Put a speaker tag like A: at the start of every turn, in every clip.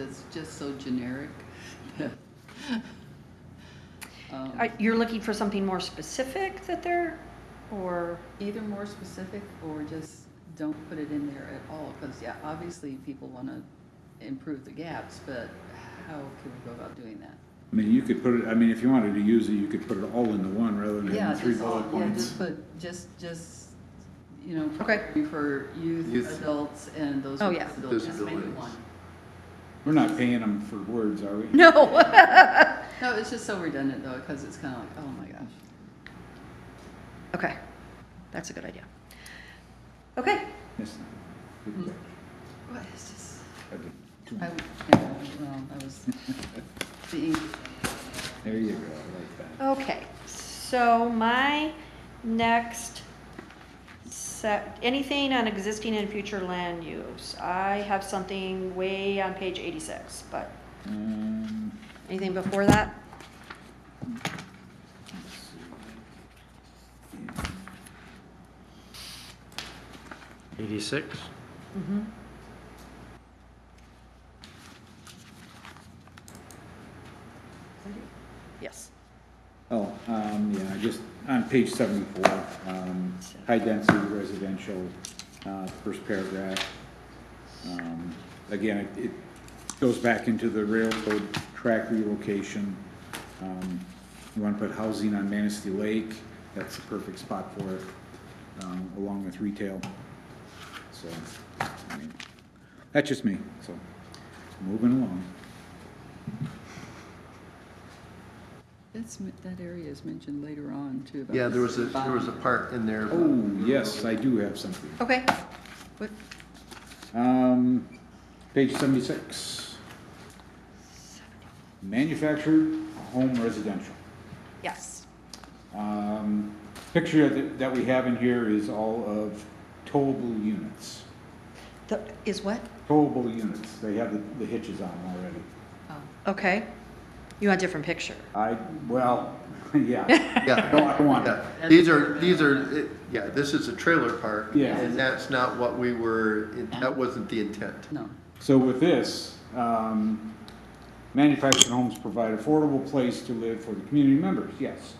A: It's just so generic. Um,
B: Are- You're looking for something more specific that they're, or,
A: Either more specific or just don't put it in there at all, because, yeah, obviously people want to improve the gaps, but how can we go about doing that?
C: I mean, you could put it, I mean, if you wanted to use it, you could put it all into one rather than
A: Yeah,
C: having three
A: just all,
C: bullet
A: yeah,
C: points.
A: just put, just, just, you know,
B: Okay.
A: for youth,
D: Youth.
A: adults, and those
B: Oh,
A: with
B: yeah.
A: disabilities. Just make it
D: Disabilities.
A: one.
C: We're not paying them for words, are we?
B: no?
A: No, it's just so redundant though, because it's kind of like, oh my gosh.
B: Okay, that's a good idea. Okay,
C: Yes. Good
A: Mm.
C: catch.
A: What is this?
C: I did too
A: I,
C: much.
A: yeah, well, I was, the ink
C: There you go, I like that.
B: okay, so my next set, anything on existing and future land use. I have something way on page eighty-six, but
C: Um,
B: anything before that?
C: let's see.
E: 86?
B: Mm-hmm. Yes.
C: Oh, um, yeah, I just, on page seventy-four, um, high-density residential, uh, first paragraph. Um, Again, it, it goes back into the railroad track relocation. Um, You wanna put housing on Manistee Lake, that's the perfect spot for it, um, along with retail. So, I mean, that's just me, so, moving along.
A: That's, m- that area is mentioned later on too. about
D: Yeah, there was a,
A: this
D: there was a
A: bond.
D: part in there. about-
C: Oh, yes, I do have something.
B: Okay,
A: What,
C: Um, page seventy-six. Manufactured home residential.
B: yes.
C: Um, picture that, that we have in here is all of towable units.
B: The, is what?
C: Towable units, they have the, the hitches on them already.
A: oh,
B: Okay. You want a different picture?
C: I, well, yeah,
D: Yeah.
C: no, I don't want that.
D: Yeah. These are, these are, it- yeah, this is a trailer park.
C: Yeah.
D: And that's not what we were, it- that wasn't the intent.
A: no,
C: So with this, um, manufactured homes provide affordable place to live for the community members, yes.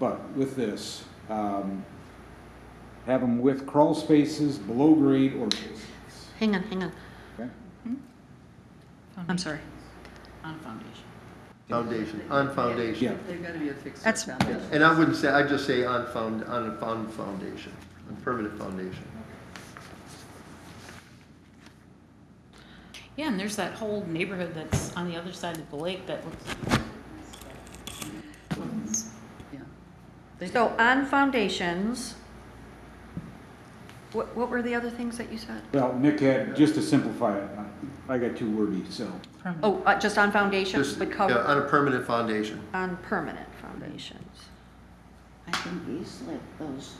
C: But with this, um, have them with crawl spaces below grade or basements,
B: Hang on, hang on.
C: okay?
F: Oh,
B: I'm sorry.
F: On foundation.
D: Foundation, on
C: Yeah,
D: foundation.
A: they've got to be a fixed
B: That's-
A: foundation.
D: And I wouldn't say, I'd just say on found, on a found foundation, on permanent foundation.
F: Yeah, and there's that whole neighborhood that's on the other side of the lake that looks.
A: Yeah. They-
B: So on foundations, what, what were the other things that you said?
C: well, Nick had, just to simplify it, I got too wordy, so,
F: Um,
B: Oh, uh, just on foundations,
D: Just,
B: but
D: yeah, uh,
B: cover
D: on a permanent foundation.
B: on permanent foundations.
F: I think
G: We used to live those,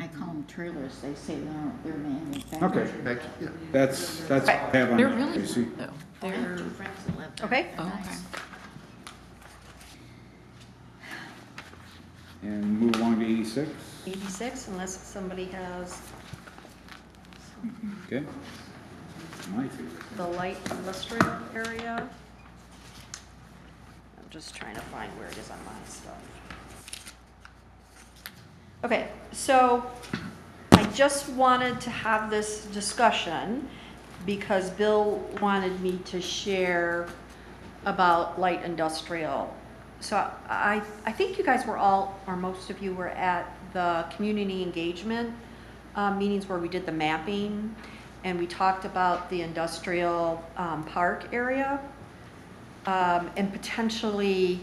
G: I call them trailers, they say they're, they're manufactured.
C: okay,
D: Back- yeah.
C: that's, that's all I have on
F: they're
C: that,
F: really
C: Tracy.
F: good though.
G: I have
F: They're,
G: two friends that live there.
B: Okay.
F: Oh,
G: Nice.
C: And move along to eighty-six,
B: Eighty-six, unless somebody has
C: okay? My favorite.
B: the light industrial area. I'm just trying to find where it is on my stuff. Okay, so I just wanted to have this discussion because Bill wanted me to share about light industrial. So I, I think you guys were all, or most of you were at the community engagement uh, meetings where we did the mapping and we talked about the industrial um, park area um, and potentially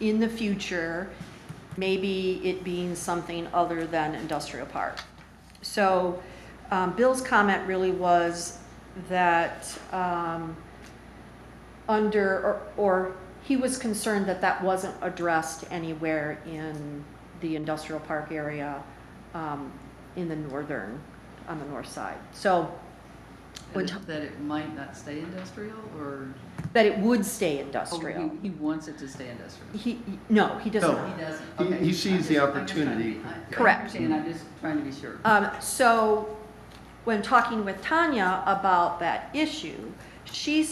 B: in the future, maybe it being something other than industrial park. So um, Bill's comment really was that um, under, or- or he was concerned that that wasn't addressed anywhere in the industrial park area um, in the northern, on the north side. So when
A: And
B: t-
A: That it might not stay industrial or?
B: that it would
A: oh,
B: stay
A: he-
B: industrial.
A: He wants it to stay industrial.
B: He, he- no, he does
D: No.
B: not.
A: He doesn't,
D: He-
A: okay.
D: he
A: I'm
D: sees the
A: just- I'm just trying to
D: opportunity.
A: be- I- I
B: Correct.
A: understand, I'm just trying to be sure.
B: Um, so, when talking with Tanya about that issue, she